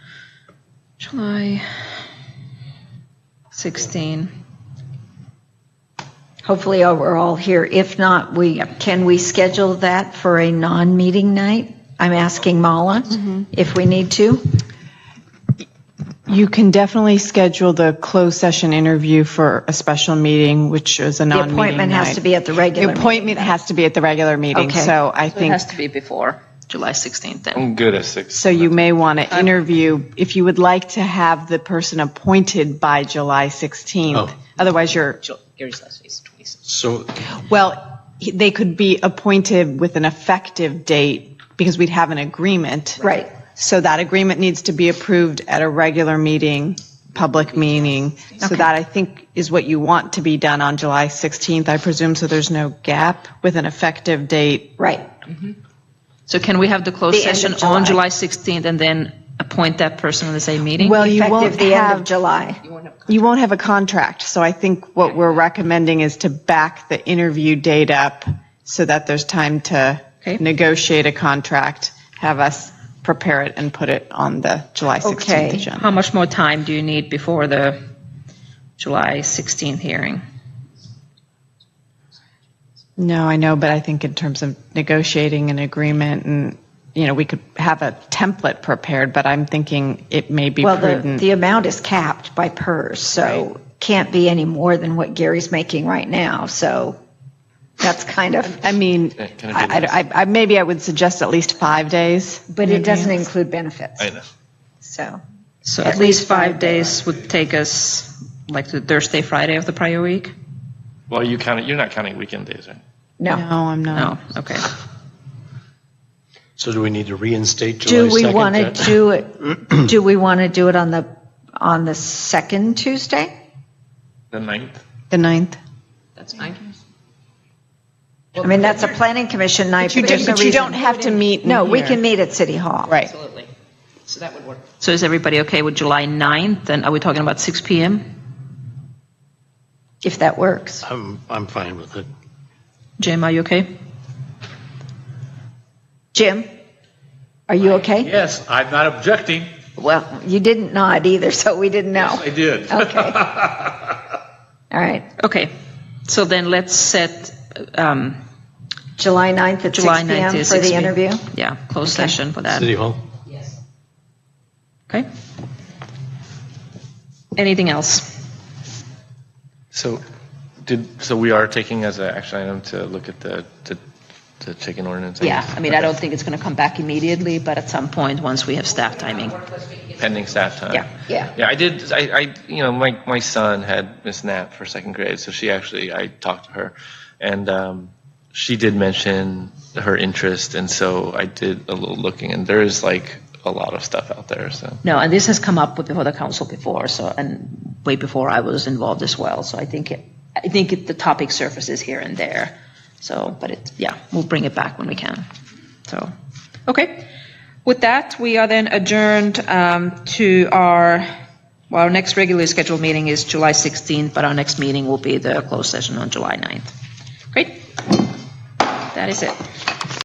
July 16. Hopefully, we're all here. If not, we, can we schedule that for a non-meeting night? I'm asking Mala if we need to. You can definitely schedule the closed session interview for a special meeting, which is a The non-meeting appointment has night. to be at the The regular meeting. appointment has to be at the regular meeting, Okay. so I It think, has to be before July 16th then. I'm good at six. so you may want to interview, if you would like to have the person appointed by July 16th. Oh. Otherwise, you're, Gary's last is 26. So, well, he- they could be appointed with an effective date because we'd have an agreement. Right. So that agreement needs to be approved at a regular meeting, public meeting. So that, I think, is what you want to be done on July 16th, I presume, so there's no gap with an effective date. Right. So can we have the closed The end of session on July July. 16th and then appoint that person in the same meeting? Well, you won't Effective the end of have, July. you won't have a contract. So I think what we're recommending is to back the interview date up so that there's time to Okay. negotiate a contract, have us prepare it and put it on the July 16th Okay. agenda. How much more time do you need before the July 16th hearing? No, I know, but I think in terms of negotiating an agreement and, you know, we could have a template prepared, but I'm thinking it may be Well, the, prudent. the amount is capped by PERS, so can't be any more than what Gary's making right now. So that's kind of, I mean, Okay, can I do I, I- I- maybe I would suggest at least five days. but it doesn't include benefits. I know. So, So at least five days would take us like to Thursday, Friday of the prior week? Well, you count, you're not counting weekend days, right? No, no. I'm not. No, okay. so do we need to reinstate July 2nd? Do we want to then? do it, do we want to do it on the, on the second Tuesday? The ninth? The ninth. That's fine. I mean, that's a planning commission night. You but there's don't, no but you reason- don't have to meet in No, we here. can meet at City Hall. Right. Absolutely. So that would work. So is everybody okay with July 9th? And are we talking about 6 PM? If that works. I'm, I'm fine with it. Jim, are you okay? Jim, are you okay? Yes, I'm not objecting. Well, you didn't nod either, so we didn't know. I did. Okay. All right. Okay, so then let's set, um, July 9th at 6 July 9th PM is for 6 the p.m. interview? yeah, closed session Um, for that, City Hall? okay? Anything else? So did, so we are taking as an action item to look at the, the- the chicken ordinance? Yeah, I mean, I Okay. don't think it's going to come back immediately, but at some point, once we have staff timing. Pending staff time. Yeah. Yeah. Yeah, I did, I, I, you know, my, my son had Miss Knapp for second grade, so she actually, I talked to her, and um, she did mention her interest, and so I did a little looking, and there is like a lot of stuff out there, so. No, and this has come up with- before the council before, so, and way before I was involved as well, so I think, it- I think it- the topic surfaces here and there, so, but it, yeah, we'll bring it back when we can, so. Okay, with that, we are then adjourned um, to our, well, our next regularly scheduled meeting is July 16th, but our next meeting will be the closed session on July 9th. Great, that is it.